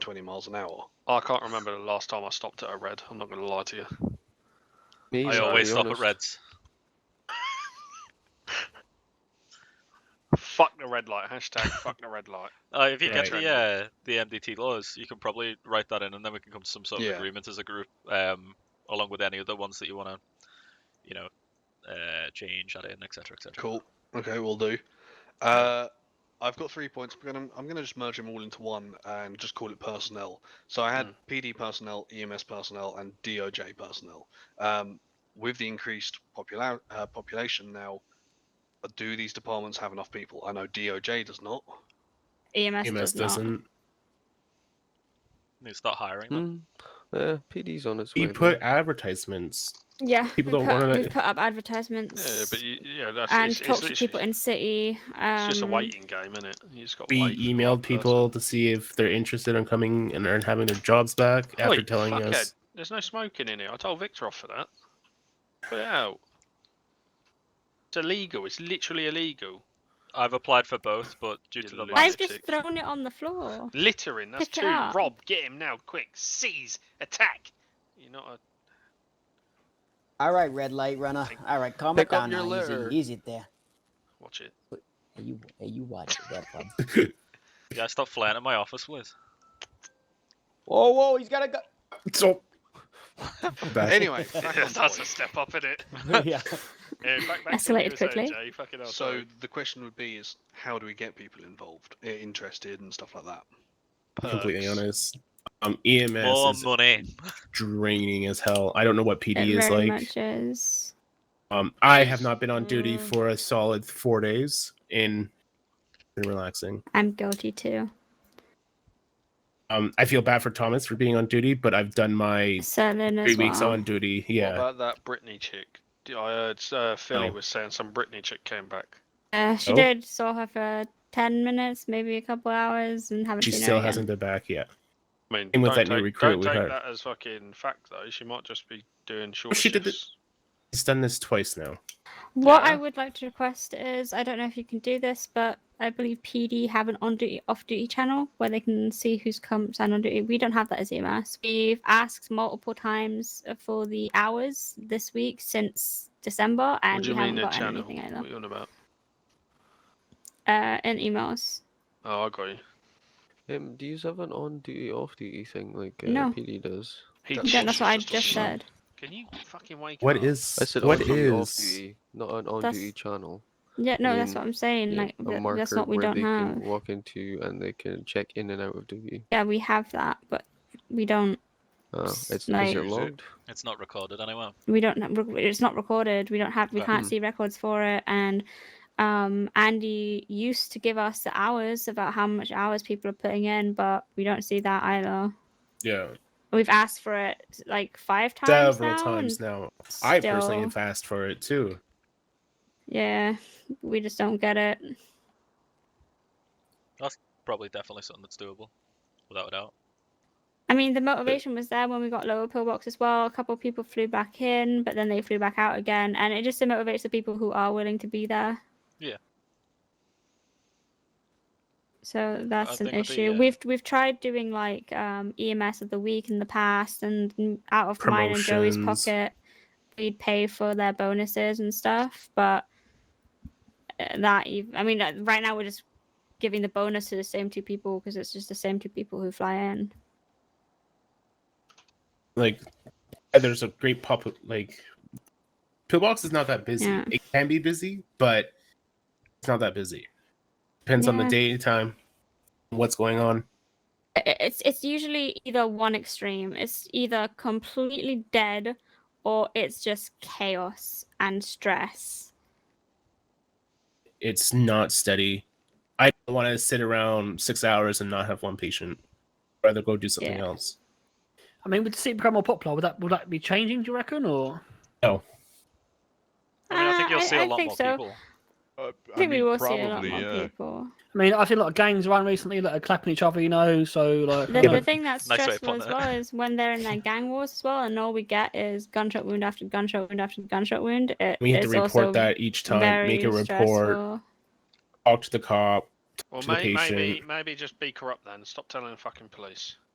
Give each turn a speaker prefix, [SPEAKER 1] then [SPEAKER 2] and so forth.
[SPEAKER 1] 20 miles an hour. I can't remember the last time I stopped at a red. I'm not going to lie to you.
[SPEAKER 2] Me
[SPEAKER 3] I
[SPEAKER 2] either, to
[SPEAKER 3] always
[SPEAKER 2] be
[SPEAKER 3] stop at
[SPEAKER 2] honest.
[SPEAKER 3] Reds.
[SPEAKER 1] Fuck the red light. Hashtag fuck the red light.
[SPEAKER 3] Uh, if you get
[SPEAKER 1] Right.
[SPEAKER 3] the uh, the MDT laws, you can probably write that in, and then we can come to some sort of
[SPEAKER 1] Yeah.
[SPEAKER 3] agreement as a group, um, along with any other ones that you want to, you know, uh, change, add in, etc., etc.
[SPEAKER 1] Cool. Okay, we'll do. Uh, I've got three points. But I'm, I'm going to just merge them all into one and just call it personnel. So I had
[SPEAKER 3] Hmm.
[SPEAKER 1] PD personnel, EMS personnel, and DOJ personnel. Um, with the increased popula- uh, population now, do these departments have enough people? I know DOJ does not.
[SPEAKER 4] EMS,
[SPEAKER 5] EMS
[SPEAKER 4] E does not.
[SPEAKER 5] E doesn't.
[SPEAKER 3] Need to start hiring them.
[SPEAKER 2] Mm, yeah, PD's on its way.
[SPEAKER 5] We
[SPEAKER 2] though.
[SPEAKER 5] put advertisements.
[SPEAKER 4] Yeah,
[SPEAKER 5] People
[SPEAKER 4] we
[SPEAKER 5] don't
[SPEAKER 4] put,
[SPEAKER 5] wanna-
[SPEAKER 4] We've put up advertisements
[SPEAKER 1] Yeah, but you, yeah, that's
[SPEAKER 4] and
[SPEAKER 1] it's, it's
[SPEAKER 4] talked to
[SPEAKER 1] literally-
[SPEAKER 4] people in city. Um,
[SPEAKER 1] It's just a waiting game, isn't it? You just got
[SPEAKER 5] We
[SPEAKER 1] wait for the
[SPEAKER 5] emailed
[SPEAKER 1] right person.
[SPEAKER 5] people to see if they're interested in coming and earn having their jobs back after
[SPEAKER 1] Oi,
[SPEAKER 5] telling
[SPEAKER 1] fuckhead,
[SPEAKER 5] us.
[SPEAKER 1] There's no smoking in here. I told Victor off for that. Put it out. It's illegal. It's literally illegal.
[SPEAKER 3] I've applied for both, but due
[SPEAKER 1] You
[SPEAKER 3] to the
[SPEAKER 1] lose.
[SPEAKER 3] lack
[SPEAKER 4] I've
[SPEAKER 3] of
[SPEAKER 4] just
[SPEAKER 3] six-
[SPEAKER 4] thrown it on the floor.
[SPEAKER 1] Littering. That's
[SPEAKER 4] Pick it
[SPEAKER 1] two.
[SPEAKER 4] up.
[SPEAKER 1] Rob, get him now, quick. Seize. Attack. You're not a.
[SPEAKER 6] All right, red light runner. All right, calm
[SPEAKER 2] Pick
[SPEAKER 6] it
[SPEAKER 2] up
[SPEAKER 6] down
[SPEAKER 2] your
[SPEAKER 6] now.
[SPEAKER 2] litter.
[SPEAKER 6] Easy, easy it there.
[SPEAKER 1] Watch it.
[SPEAKER 6] Hey, you, hey, you watch it, that bud.
[SPEAKER 3] yeah, stop flying at my office, Liz.
[SPEAKER 6] Whoa, whoa, he's got a gun.
[SPEAKER 5] So, Back-
[SPEAKER 1] Anyway, back on
[SPEAKER 3] That's
[SPEAKER 1] point.
[SPEAKER 3] step up in it.
[SPEAKER 6] yeah.
[SPEAKER 3] Yeah, back, back to what
[SPEAKER 4] Escalated
[SPEAKER 3] you were saying,
[SPEAKER 4] quickly.
[SPEAKER 3] Jay, fucking hell,
[SPEAKER 1] So
[SPEAKER 3] sorry.
[SPEAKER 1] the question would be: Is how do we get people involved, i- interested, and stuff like that?
[SPEAKER 5] completely
[SPEAKER 4] uh,
[SPEAKER 1] Perks.
[SPEAKER 5] honest. Um, EMS
[SPEAKER 3] more
[SPEAKER 5] is
[SPEAKER 3] money.
[SPEAKER 5] draining as hell. I don't know what PD
[SPEAKER 4] it
[SPEAKER 5] is
[SPEAKER 4] very
[SPEAKER 5] like.
[SPEAKER 4] much is.
[SPEAKER 5] Um, I have not been on duty
[SPEAKER 4] Mm.
[SPEAKER 5] for a solid four days and been relaxing.
[SPEAKER 4] I'm guilty too.
[SPEAKER 5] Um, I feel bad for Thomas for being on duty, but I've done my
[SPEAKER 4] Selling as
[SPEAKER 5] three weeks
[SPEAKER 4] well.
[SPEAKER 5] on duty.
[SPEAKER 1] What
[SPEAKER 5] Yeah,
[SPEAKER 1] about that Britney chick? D- I heard uh, Philly
[SPEAKER 5] Oh.
[SPEAKER 1] was saying some Britney chick came back.
[SPEAKER 4] Uh, she
[SPEAKER 5] Oh.
[SPEAKER 4] did saw her for ten minutes, maybe a couple hours, and haven't
[SPEAKER 5] she
[SPEAKER 4] seen her
[SPEAKER 5] still
[SPEAKER 4] again.
[SPEAKER 5] hasn't been back yet.
[SPEAKER 1] I mean,
[SPEAKER 5] Same with
[SPEAKER 1] don't
[SPEAKER 5] that
[SPEAKER 1] take,
[SPEAKER 5] new recruit
[SPEAKER 1] don't
[SPEAKER 5] we
[SPEAKER 1] take
[SPEAKER 5] had.
[SPEAKER 1] that as fucking fact though. She might just be doing short.
[SPEAKER 5] she did the-
[SPEAKER 1] shifts.
[SPEAKER 5] He's done this twice now.
[SPEAKER 4] What I
[SPEAKER 1] Yeah.
[SPEAKER 4] would like to request is I don't know if you can do this, but I believe PD have an on duty, off duty channel where they can see who's come and on duty. We don't have that as EMS. We've asked multiple times for the hours this week since December,
[SPEAKER 1] what
[SPEAKER 4] and
[SPEAKER 1] do
[SPEAKER 4] we
[SPEAKER 1] you mean
[SPEAKER 4] haven't
[SPEAKER 1] a
[SPEAKER 4] got
[SPEAKER 1] channel?
[SPEAKER 4] anything
[SPEAKER 1] What
[SPEAKER 4] either.
[SPEAKER 1] you on about?
[SPEAKER 4] Uh, in emails.
[SPEAKER 1] Oh, I got you.
[SPEAKER 2] Um, do you have an on-duty, off-duty thing like uh,
[SPEAKER 4] No.
[SPEAKER 2] PD does?
[SPEAKER 1] He
[SPEAKER 4] Yeah, that's what I
[SPEAKER 1] just
[SPEAKER 4] just
[SPEAKER 1] doesn't-
[SPEAKER 4] said.
[SPEAKER 1] Can you fucking wake
[SPEAKER 5] What
[SPEAKER 1] up?
[SPEAKER 5] is?
[SPEAKER 2] I said
[SPEAKER 5] what
[SPEAKER 2] on-duty,
[SPEAKER 5] is?
[SPEAKER 2] off-duty, not an
[SPEAKER 4] That's-
[SPEAKER 2] on-duty channel.
[SPEAKER 4] Yeah, no, that's
[SPEAKER 2] mean,
[SPEAKER 4] what I'm saying.
[SPEAKER 2] Yeah,
[SPEAKER 4] Like
[SPEAKER 2] a
[SPEAKER 4] th-
[SPEAKER 2] marker
[SPEAKER 4] that's what we
[SPEAKER 2] where
[SPEAKER 4] don't
[SPEAKER 2] they
[SPEAKER 4] have.
[SPEAKER 2] can walk into and they can check in and out of duty.
[SPEAKER 4] Yeah, we have that, but we don't.
[SPEAKER 2] Uh,
[SPEAKER 4] S-
[SPEAKER 2] it's is
[SPEAKER 4] like-
[SPEAKER 2] it
[SPEAKER 1] Use it.
[SPEAKER 2] logged?
[SPEAKER 3] It's not recorded anywhere.
[SPEAKER 4] we don't have- rec- it's not recorded we don't have we
[SPEAKER 3] Right.
[SPEAKER 4] can't
[SPEAKER 2] Mm.
[SPEAKER 4] see records for it and um andy used to give us the hours about how much hours people are putting in but we don't see that either
[SPEAKER 5] Yeah,
[SPEAKER 4] we've asked for it like five times
[SPEAKER 5] several
[SPEAKER 4] now,
[SPEAKER 5] times
[SPEAKER 4] and
[SPEAKER 5] now. I personally
[SPEAKER 4] still-
[SPEAKER 5] have asked for it too.
[SPEAKER 4] yeah we just don't get it
[SPEAKER 3] Probably definitely something that's doable, without a doubt.
[SPEAKER 4] i mean the motivation was there when we got lower pillbox as well a couple of people flew back in but then they flew back out again and it just motivates the people who are willing to be there
[SPEAKER 3] Yeah.
[SPEAKER 4] So that's an
[SPEAKER 3] think it'll be,
[SPEAKER 4] issue.
[SPEAKER 3] uh,
[SPEAKER 4] We've we've tried doing like um, EMS of the week in the past, and n- out of mine and Joey's
[SPEAKER 5] Promotions.
[SPEAKER 4] pocket, we'd pay for their bonuses and stuff. But uh, that ev- I mean, uh, right now we're just giving the bonus to the same two people because it's just the same two people who fly in.
[SPEAKER 5] Like, there's a great pop. Like, pillbox is not that busy.
[SPEAKER 4] Yeah.
[SPEAKER 5] It can be busy, but it's not that busy. Depends on the
[SPEAKER 4] Yeah.
[SPEAKER 5] day and time, what's going on.
[SPEAKER 4] I- I- It's it's usually either one extreme. It's either completely dead, or it's just chaos and stress.
[SPEAKER 5] It's not steady. I don't want to sit around six hours and not have one patient. I'd rather go do something
[SPEAKER 4] Yeah.
[SPEAKER 5] else.
[SPEAKER 7] I mean, with Super more popular, would that would that be changing? Do you reckon? Or
[SPEAKER 3] I mean, I think
[SPEAKER 4] Uh,
[SPEAKER 3] you'll see a lot
[SPEAKER 4] think
[SPEAKER 3] more
[SPEAKER 4] so.
[SPEAKER 3] people.
[SPEAKER 8] Uh,
[SPEAKER 4] I think we
[SPEAKER 8] mean,
[SPEAKER 4] will see a lot
[SPEAKER 8] probably,
[SPEAKER 4] more
[SPEAKER 8] yeah.
[SPEAKER 4] people.
[SPEAKER 7] I mean, I've seen a lot of gangs around recently that are clapping each other. You know, so like.
[SPEAKER 4] The,
[SPEAKER 7] I
[SPEAKER 4] the
[SPEAKER 7] don't-
[SPEAKER 4] thing that's
[SPEAKER 3] Nice way of
[SPEAKER 4] stressful
[SPEAKER 3] putting
[SPEAKER 4] as
[SPEAKER 3] it.
[SPEAKER 4] well is when they're in their gang wars as well, and all we get is gunshot wound after gunshot wound after gunshot wound. It,
[SPEAKER 5] We have
[SPEAKER 4] it's
[SPEAKER 5] to report
[SPEAKER 4] also
[SPEAKER 5] that each time,
[SPEAKER 4] very
[SPEAKER 5] make a report,
[SPEAKER 4] stressful.
[SPEAKER 5] talk to the cop.
[SPEAKER 1] Well,
[SPEAKER 5] To the
[SPEAKER 1] may, maybe
[SPEAKER 5] patient.
[SPEAKER 1] maybe just be corrupt then. Stop telling the fucking police.